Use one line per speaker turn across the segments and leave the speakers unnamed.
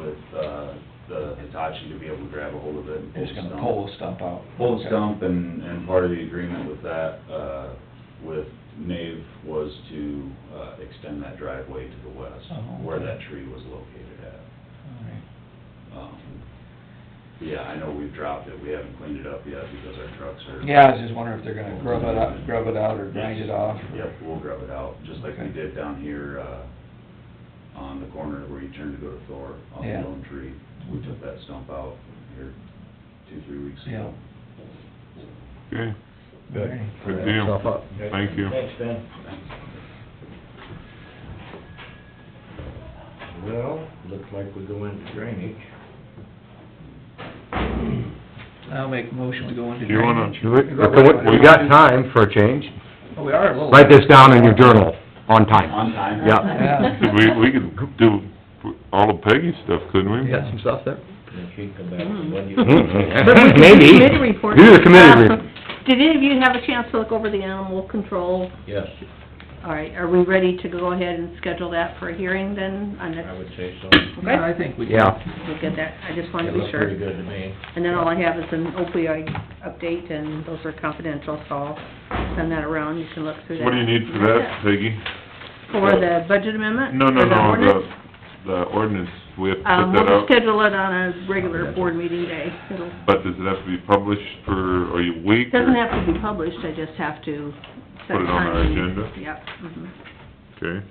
uh, Hitachi to be able to grab a hold of it.
It's gonna
Stump.
pull the stump out.
Pull the stump and, and part of the agreement with that, uh, with Nave was to, uh, extend that driveway to the west,
Oh,
where
okay.
that tree was located at.
Alright.
Um, Yeah, I know we've dropped it, we haven't cleaned it up yet because our trucks are.
Yeah, I was just wondering if they're gonna grub it out, grub it out or grind it off. or-
Yep, we'll grub it out, just like we
Okay.
did down here, uh, on the corner where you turn to go to Thor, on the
Yeah.
lone tree. We took that stump out here two, three weeks ago.
Okay,
Good.
good deal. Thank you.
Ben.
Thanks.
Well, looks like we go into drainage.
I'll make a motion to go into.
Do you wanna,
drainage.
Do it. We got time for a change.
Oh, We are a little.
Write this down in your journal, on
On
time.
time.
Yeah.
Yeah.
could we, we could do all of Peggy's stuff, couldn't we?
You got some stuff there?
If you come back, what do you?
Mhm.
The
Maybe.
Committee report.
Do the committee
Uh,
report.
Did any of you have a chance to look over the animal control?
Yes,
All right, are we ready to go ahead and schedule that for a hearing then? on
I
the-
would say so.
Yeah,
Okay,
I think we can.
Yeah.
we'll get that, I just wanted
It
to be
looked
sure.
pretty good to me.
And then all I have is an opioid update, and those are confidential, so I'll send that around, you can look through that.
What do you need for that, Peggy?
For the budget amendment?
No, no,
for the
no,
ordinance?
the, the ordinance, we have to put
Um, we'll
that
just
out,
schedule it on a regular board meeting day. It'll,
but does it have to be published for, or a week? or-
doesn't have to be published, I just have to set
Put it on our
time.
agenda?
Yep, mhm.
Okay,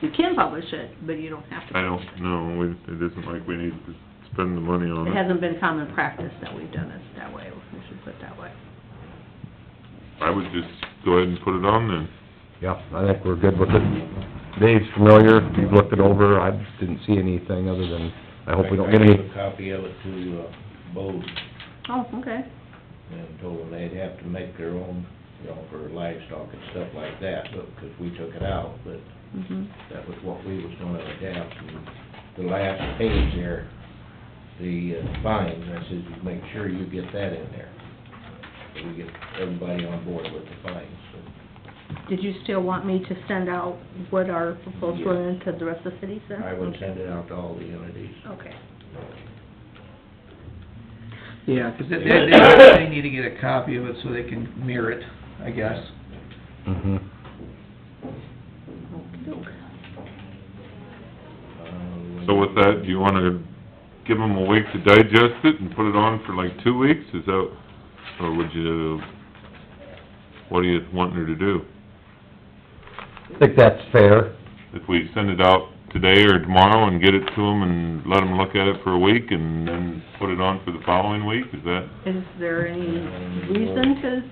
You can publish it, but you don't have to.
I don't know, we, it isn't like we need to spend the money on
It
it.
hasn't been common practice that we've done it that way, we should put it that way.
I would just go ahead and put it on then.
Yep, I think we're good with it. Dave's familiar, he's looked it over, I didn't see anything other than, I hope we don't get
I
any,
gave a copy of it to uh, Bode
Oh, okay.
and told them they'd have to make their own, you know, for livestock and stuff like that, but, because we took it out, but
Mhm.
that was what we was gonna adapt. And The last page there, the uh, fines, I says, "You make sure you get that in there. So We get everybody on board with the fines, so.
Did you still want me to send out what our proposal
Yeah.
is to the rest of the cities then?
I would send it out to all the entities.
Okay.
Yeah, 'cause they, they, they- they need to get a copy of it so they can mirror it, I guess.
Mhm.
Okey-doke.
Uh,
So with that, do you wanna give them a week to digest it and put it on for like two weeks, is that, or would you, what are you wanting her to do?
I think that's fair.
If we send it out today or tomorrow and get it to them and let them look at it for a week and then put it on for the following week, is that?
Is there any reason to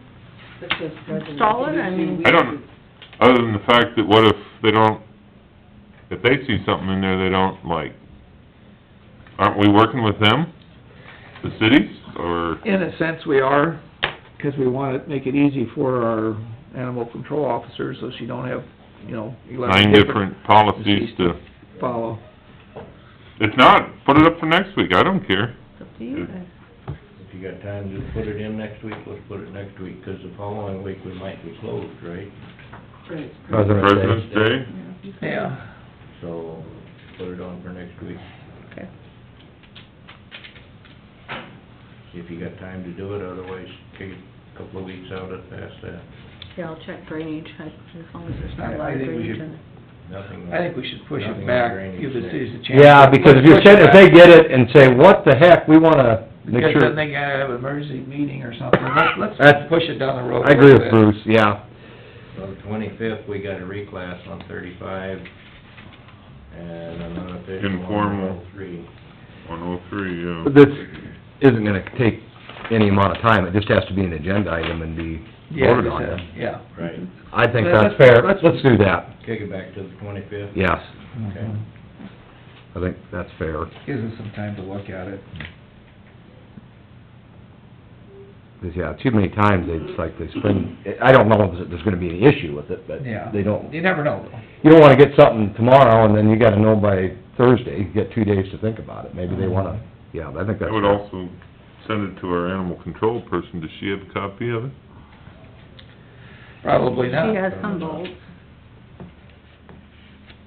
install it? I mean,
I don't, other than the fact that what if they don't, if they see something in there they don't like, aren't we working with them, the cities, or?
In a sense, we are, 'cause we wanna make it easy for our animal control officers, so she don't have, you know, eleven
nine
different
different policies to,
follow.
if not, put it up for next week, I don't care.
it's up to you guys.
If you got time to put it in next week, let's put it next week, 'cause the following week we might be closed, right?
President's Day.
President's Day,
Yeah.
So, put it on for next week.
Okay.
If you got time to do it, otherwise take a couple of weeks out at uh, past that.
Yeah, I'll check drainage, I- as long as there's
I-
not a
I
lot of
think we
drainage
should-
in it.
Nothing.
I think we should push
Nothing
it
on
back,
drainage
give the
there.
cities a chance.
Yeah, because if you're
Push it
sitting, if they
back,
get it and say, what the heck, we wanna make
Because then
sure.
they gotta have an emergency meeting or something, let's, let's
That's-
push it down the road.
I
a
agree
little
with
bit.
Bruce, yeah.
On the twenty-fifth, we got a reclass on thirty-five and an unofficial on
Informal.
103.
one oh three, yeah.
But This isn't gonna take any amount of time, it just has to be an agenda item and be
Yeah,
voted
just
on.
that,
then.
Yeah.
Right,
I think
Let's-
that's fair,
let's-
let's do that,
kick it back to the twenty-fifth.
yes,
Okay.
I think that's fair.
Gives us some time to look at it.
'Cause, yeah, too many times, they just like, they spend, I don't know if there's gonna be any issue with it, but
Yeah.
they don't,
You never know, though.
you don't wanna get something tomorrow, and then you gotta know by Thursday, you get two days to think about it, maybe they wanna, yeah, I think that's
I would
fair.
also send it to our animal control person, does she have a copy of it?
Probably not.
She has Humboldt.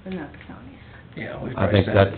But not the county.
Yeah, we
I
probably
think
sent it.
that's